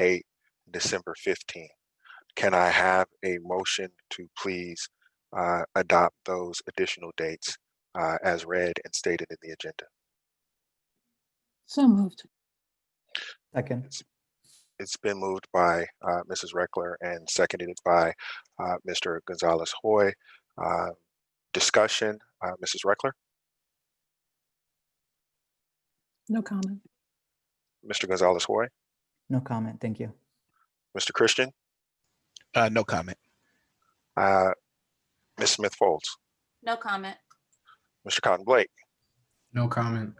eight, December 15. Can I have a motion to please uh, adopt those additional dates uh, as read and stated in the agenda? So moved. Second, It's been moved by uh, Mrs. Reckler and seconded by uh, Mr. Gonzalez Hoy. Uh, Discussion, uh, Mrs. Reckler, No comment. Mr. Gonzalez Hoy, no comment, thank you. Mr. Christian, Uh, no comment. uh, Ms. Smith Folds, No comment. Mr. Cotton Blake, No comment.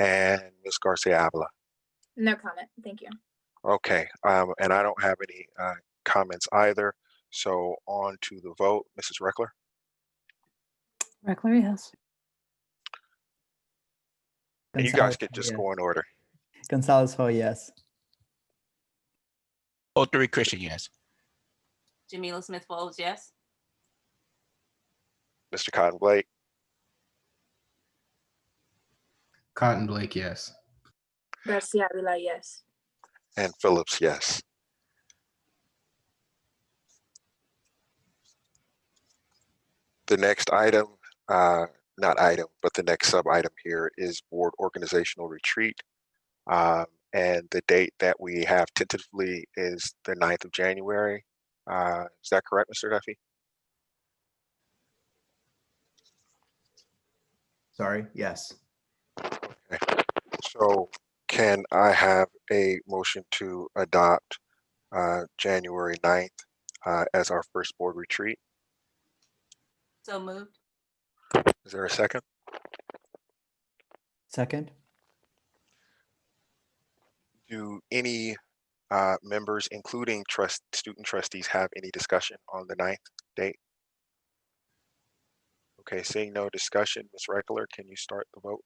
and Ms. Garcia Avila. No comment, thank you. Okay, um, and I don't have any, uh, comments either. So on to the vote, Mrs. Reckler, Reckler, yes. and you guys Gonzalez could Ho, just yes. go in order. Gonzalez Ho, yes. Oh, three Christian, yes. Jamila Smith Folds, yes. Mr. Cotton Blake, Cotton Blake, yes. Garcia Avila, yes. and Phillips, yes. The next item, uh, not item, but the next sub-item here is board organizational retreat. Um, and the date that we have tentatively is the 9th of January. Uh, is that correct, Mr. Duffy? Sorry, yes. So can I have a motion to adopt uh, January 9th uh, as our first board retreat? So moved. Is there a second? Second, Do any uh, members, including trust, student trustees, have any discussion on the 9th date? Okay, seeing no discussion, Ms. Reckler, can you start the vote?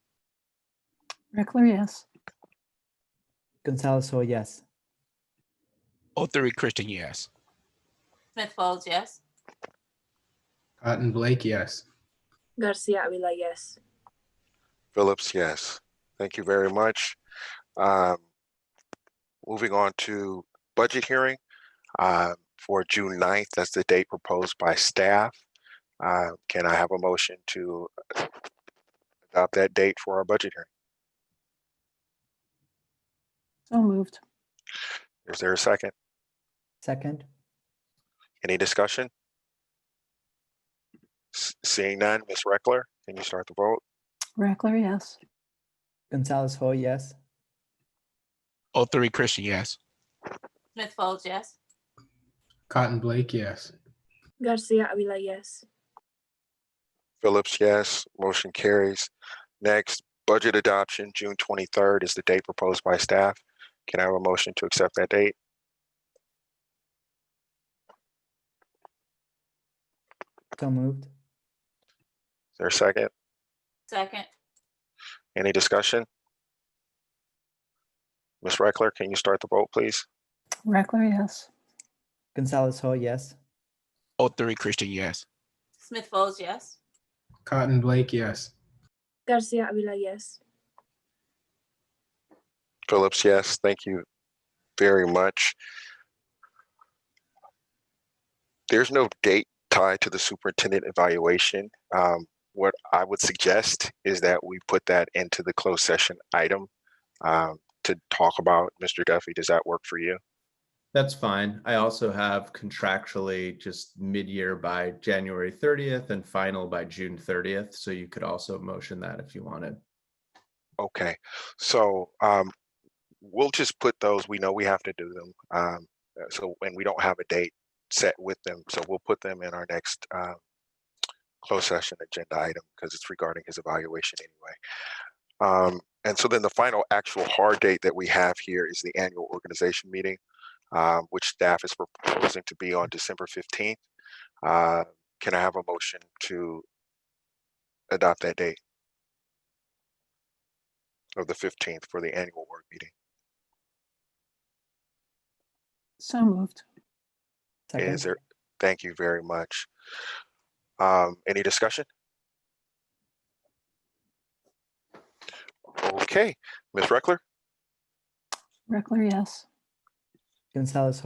Reckler, yes. Gonzalez Ho, yes. Oh, three Christian, yes. Smith Folds, yes. Cotton Blake, yes. Garcia Avila, yes. Phillips, yes. Thank you very much. Um, Moving on to budget hearing uh, for June 9th, that's the date proposed by staff. Uh, Can I have a motion to adopt that date for our budget hearing? So moved. Is there a second? Second, Any discussion? S- Seeing none, Ms. Reckler, can you start the vote? Reckler, yes. Gonzalez Ho, yes. Oh, three Christian, yes. Smith Folds, yes. Cotton Blake, yes. Garcia Avila, yes. Phillips, yes. Motion carries. Next, budget adoption, June 23rd is the date proposed by staff. Can I have a motion to accept that date? So moved. Is there a second? Second. Any discussion? Ms. Reckler, can you start the vote, please? Reckler, yes. Gonzalez Ho, yes. Oh, three Christian, yes. Smith Folds, yes. Cotton Blake, yes. Garcia Avila, yes. Phillips, yes. Thank you very much. There's no date tied to the superintendent evaluation. Um, What I would suggest is that we put that into the closed session item um, to talk about. Mr. Duffy, does that work for you? That's fine. I also have contractually just mid-year by January thirtieth and final by June thirtieth. So you could also motion that if you wanted. Okay, so um, we'll just put those, we know we have to do them. um, uh, So, and we don't have a date set with them, so we'll put them in our next uh, closed session agenda item because it's regarding his evaluation anyway. Um, And so then the final actual hard date that we have here is the annual organization meeting, um, which staff is proposing to be on December 15th. Uh, Can I have a motion to adopt that date? of the fifteenth for the annual work meeting. So moved. Is Second, there, thank you very much. Um, any discussion? Okay, Ms. Reckler, Reckler, yes. Gonzalez oh,